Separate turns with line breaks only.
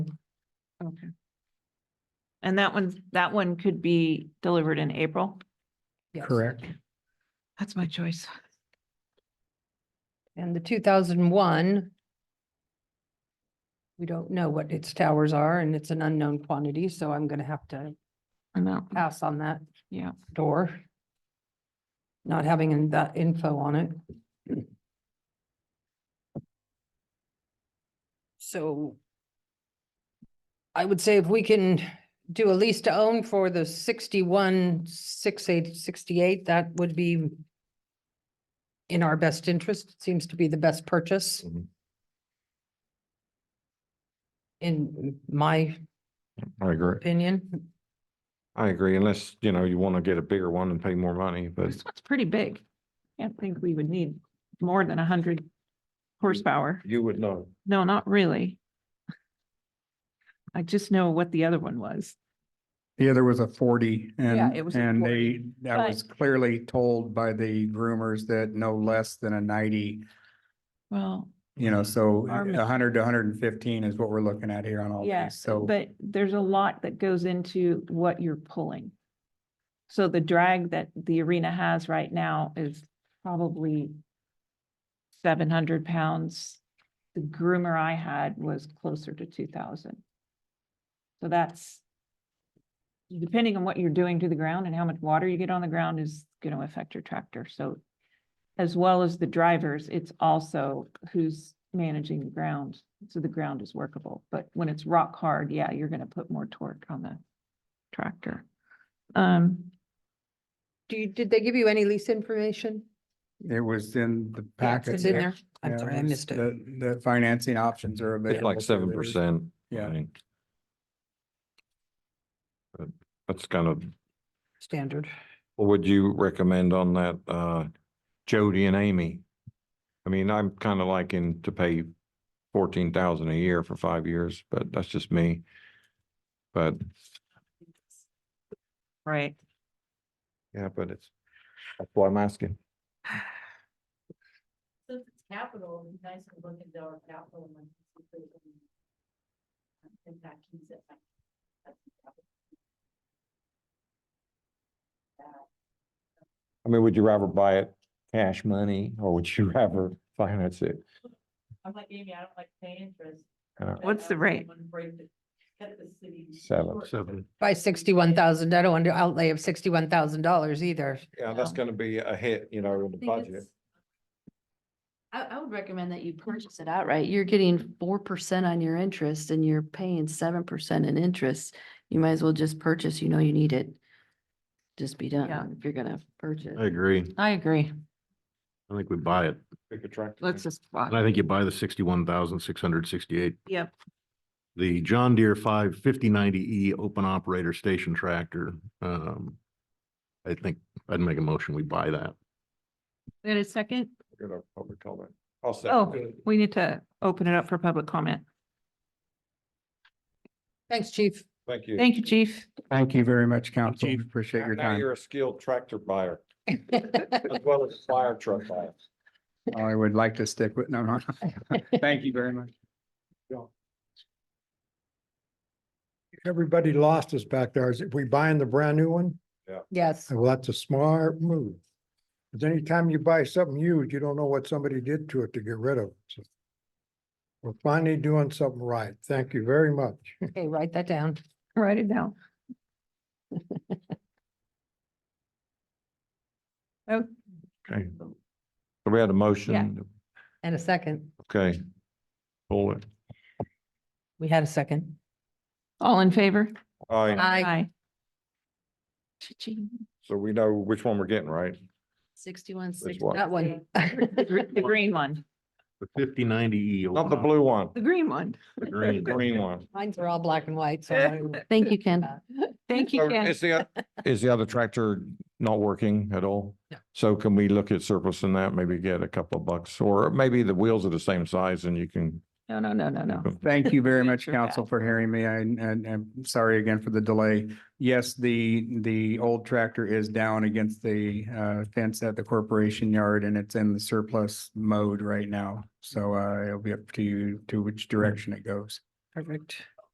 Okay. And that one, that one could be delivered in April?
Yes.
correct?
That's my choice.
And the two thousand and one. We don't know what its towers are and it's an unknown quantity, so I'm gonna have to
I know,
pass on that
yeah.
door. Not having in- that info on it. So I would say if we can do a lease to own for the sixty-one, six, eight, sixty-eight, that would be in our best interest, seems to be the best purchase.
Mhm.
In my
I agree.
opinion,
I agree, unless, you know, you want to get a bigger one and pay more money, but
This one's pretty big. Can't think we would need more than a hundred horsepower.
you would know.
No, not really. I just know what the other one was.
The other was a forty and,
it was a
and
40,
they, that was clearly told by the groomers that no less than a ninety,
Well,
you know,
Mm-hmm.
so
Our
a hundred to hundred and fifteen is what we're looking at here on all these,
yes,
so.
but there's a lot that goes into what you're pulling. So the drag that the arena has right now is probably seven hundred pounds. The groomer I had was closer to two thousand. So that's depending on what you're doing to the ground and how much water you get on the ground is going to affect your tractor. So as well as the drivers, it's also who's managing the ground. So the ground is workable, but when it's rock hard, yeah, you're going to put more torque on the tractor. Um,
do you, did they give you any lease information?
It was in
Yeah,
the
it's-
packet.
It's in there. I'm
Yeah,
sorry, I
was-
missed it.
The, the financing options are
It's
available.
like
so there
seven
was-
percent.
Yeah.
That's kind of,
Standard.
what would you recommend on that, uh, Jody and Amy? I mean, I'm kind of liking to pay fourteen thousand a year for five years, but that's just me. But,
right.
yeah, but it's, that's why I'm asking.
Since it's capital, it'd be nice to look into our capital and see if there's any. uh, Impact keys that. might- that's the capital. That,
I mean, would you rather buy it cash money or would you rather finance it?
I'm like Amy, I don't like paying interest.
Uh,
but
What's the
I
rate?
wouldn't break the- Cut the city.
Seven.
short.
By sixty-one thousand, I don't want to outlay of sixty-one thousand dollars either.
Yeah, that's gonna be a hit, you know, in the
I think
budget.
it's- I, I would recommend that you purchase it outright. You're getting four percent on your interest and you're paying seven percent in interest. You might as well just purchase, you know you need it. Just be
Yeah.
done if you're gonna purchase.
I agree.
I agree.
I think we buy it.
Big attractive.
Let's just.
And I think you buy the sixty-one thousand, six hundred sixty-eight.
Yep.
The John Deere five fifty ninety E open operator station tractor. Um, I think I'd make a motion, we buy that.
In a second,
We're gonna probably call that. I'll
Oh.
second it.
we need to open it up for public comment.
Thanks, chief.
Thank you.
Thank you, chief.
Thank you very much, council.
Chief.
Appreciate your
Now
time.
you're a skilled tractor buyer as well as fire truck buyer.
I would like to stick with, no, no. Thank you very much.
everybody lost us back there. Is if we buying the brand new one?
Yes,
Well, that's a smart move. Because anytime you buy something huge, you don't know what somebody did to it to get rid of it. So We're finally doing something right. Thank you very much.
okay, write that down.
Write it down. Oh,
Okay. So we had a motion.
And a second.
Okay. Hold it.
We had a second.
all in favor?
All right,
I,
Cha-ching.
so we know which one we're getting, right?
Sixty-one, six.
what?
that one.
The gr- the green one,
The fifty ninety E.
Not the blue one,
the green one.
The
the
green.
green one.
Mines are all black and white, so. I don't even-
Thank you, Ken.
Thank you,
So
Ken.
Is the, oth- is the other tractor not working at all?
No.
So can we look at surplus in that, maybe get a couple of bucks, or maybe the wheels are the same size and you can.
No, no, no, no, no.
Thank you very
Thank
much,
you for that.
council, for hearing me. I- And, and I'm sorry again for the delay. Yes, the, the old tractor is down against the uh, fence at the corporation yard and it's in the surplus mode right now. So uh, it'll be up to you to which direction it goes.
Perfect.